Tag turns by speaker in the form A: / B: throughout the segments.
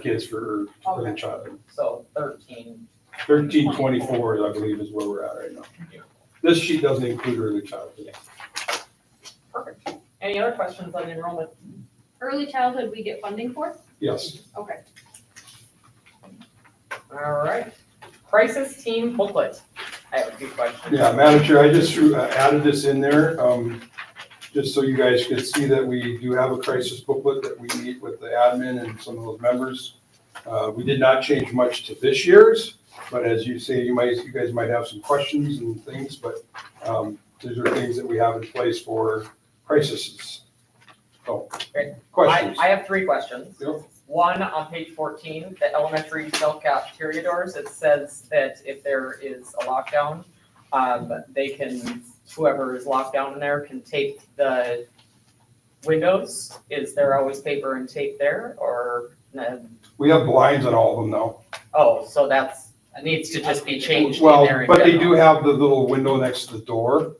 A: kids for early
B: Okay.
A: childhood.
B: So thirteen,
A: Thirteen twenty-four, I believe, is where we're at right now.
B: Yeah.
A: This sheet doesn't include early childhood.
B: perfect. Any other questions on enrollment?
C: Early childhood, we get funding for?
A: Yes,
C: Okay.
B: All right. Crisis team booklet. I have a few questions.
A: yeah, Madam Chair, I just threw- I added this in there, um, just so you guys could see that we do have a crisis booklet that we meet with the admin and some of those members. Uh, we did not change much to this year's, but as you say, you might, you guys might have some questions and things, but, um, these are things that we have in place for crises. So,
B: Great. I,
A: questions?
B: I have three questions.
A: Yep.
B: One, on page fourteen, the elementary self cafeteria doors, it says that if there is a lockdown, um, they can, whoever is locked down in there can tape the windows. Is there always paper and tape there or, no?
A: We have blinds on all of them now.
B: oh, so that's, it needs to just be changed in
A: Well,
B: there in
A: but they do
B: general.
A: have the little window next to the door.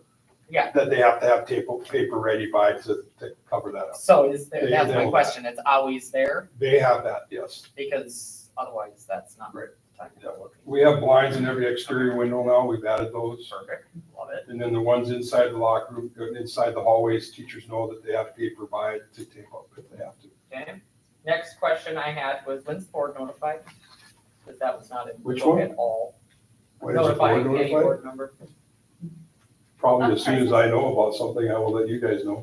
B: Yeah.
A: That they have to have paper, paper ready by to, to cover that up.
B: So is there,
A: They-
B: that's
A: they'll
B: my
A: have-
B: question, it's always there
A: They have that, yes.
B: because otherwise that's not.
A: Right.
B: time.
A: That We have blinds in every exterior window now. We've added those.
B: Perfect, love it.
A: And then the ones inside the locker room, uh, inside the hallways, teachers know that they have paper by to tape up if they have to.
B: Okay, next question I had was when's the board notified? That that was not in.
A: Which
B: book
A: one?
B: At all.
A: When is the board
B: Notifying any
A: notified?
B: board member.
A: Probably as soon as I know about something, I will let you guys know.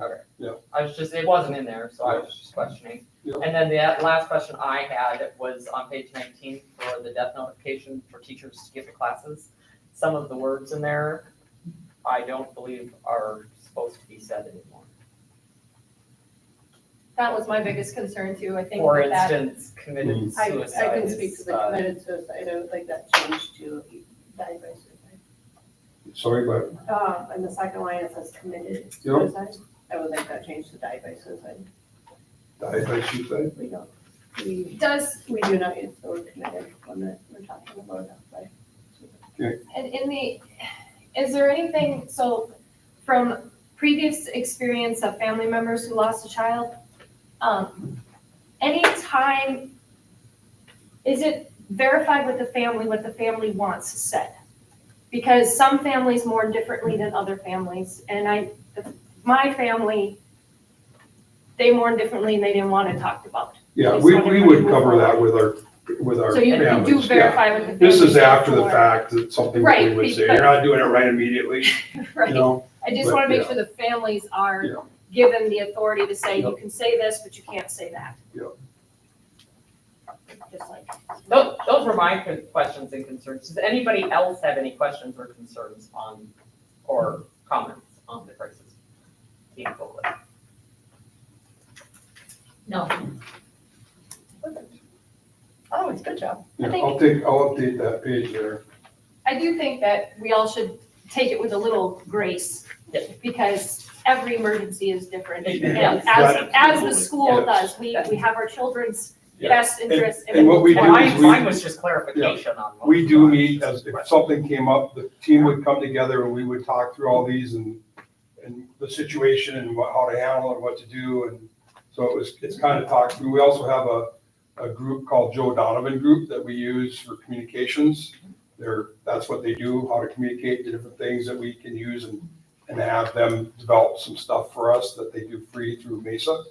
B: I was just, it wasn't in there, so I was just questioning.
A: Yeah.
B: And then the last question I had was on page nineteen for the death notification for teachers to give to classes. Some of the words in there, I don't believe are supposed to be said anymore.
C: That was my biggest concern too, I think
B: For
C: that that.
B: instance,
A: Mm.
B: committed
D: I, I
B: suicide
D: can speak to
B: is,
D: the
B: uh,
D: committed suicide, I would like that changed to died by suicide.
A: Sorry, but
D: Uh, and the second line, it says committed
A: Yeah.
D: suicide, I would like that changed to died by suicide.
A: I, I shoot that.
D: We don't, we,
C: Does,
D: we do not use the word committed when that we're talking about death by.
C: and in the, is there anything, so from previous experience of family members who lost a child, um, any time, is it verified with the family what the family wants said? Because some families mourn differently than other families, and I, my family, they mourn differently and they didn't want it talked about.
A: Yeah, we, we would cover that with our, with our
C: So you you do
A: families, yeah.
C: verify with the family.
A: This is after the
C: before.
A: fact that something that we
C: Right,
A: would say,
C: but-
A: you're not doing it right immediately, you
C: Right.
A: know?
C: I just
A: But,
C: want to make
A: yeah.
C: sure the families
A: Yeah.
C: are given the authority to say,
A: Yeah.
C: you can say this, but you can't say that.
A: Yeah.
C: Just like,
B: Those, those were my con- questions and concerns. Does anybody else have any questions or concerns on, or comments on the crisis team booklet?
E: No.
B: Oh, it's good job.
A: Yeah,
C: think-
A: I'll take, I'll update that page there.
C: I do think that we all should take it with a little grace.
B: Yeah.
C: Because every emergency is different.
B: It
C: And
B: is.
C: as, as the school
A: Yeah.
C: does, we, we have our children's
A: Yeah.
C: best interests. in
A: and what we
C: mind.
A: do is
B: Mine,
A: we-
B: mine was just clarification on. what
A: We
B: was
A: do
B: going on.
A: meet, as if something came up, the team would come together and we would talk through all these and, and the situation and what, how to handle and what to do, and so it was, it's kind of talked through. We also have a, a group called Joe Donovan Group that we use for communications. They're, that's what they do, how to communicate the different things that we can use and, and have them develop some stuff for us that they do free through Mesa.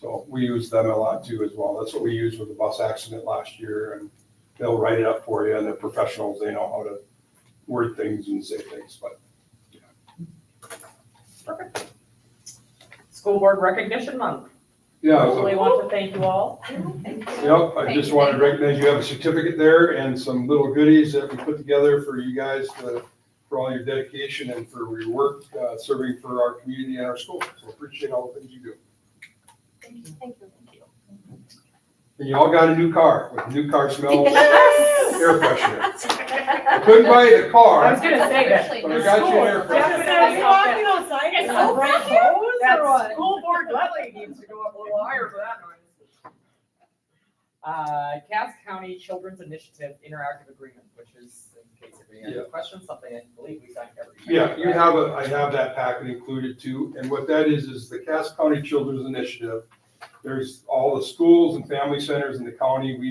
A: So we use them a lot too as well. That's what we used with the bus accident last year and they'll write it up for you and they're professionals. They know how to word things and say things, but
B: School Board Recognition Month.
A: yeah. so-
B: Really want to thank you all.
A: Yep, I
C: Thank
A: just
C: you.
A: wanted to recognize you have a certificate there and some little goodies that we put together for you guys to, for all your dedication and for your work, uh, serving for our community and our school. So appreciate all the things you do.
C: Thank you.
A: And you all got a new car with new car smells,
C: Yes.
A: air freshener. I couldn't buy you the
B: I was
A: car,
B: gonna say that.
A: but I got you an air freshener.
B: outside
C: and I broke
B: That school board levy needs to go up a little higher for that noise. Uh, Cass County Children's Initiative Interactive Agreement, which is, in case anybody has
A: Yeah.
B: a question, something I believe we signed every year.
A: Yeah, you have a, I have that packet included too, and what that is, is the Cass County Children's Initiative. There's all the schools and family centers in the county, we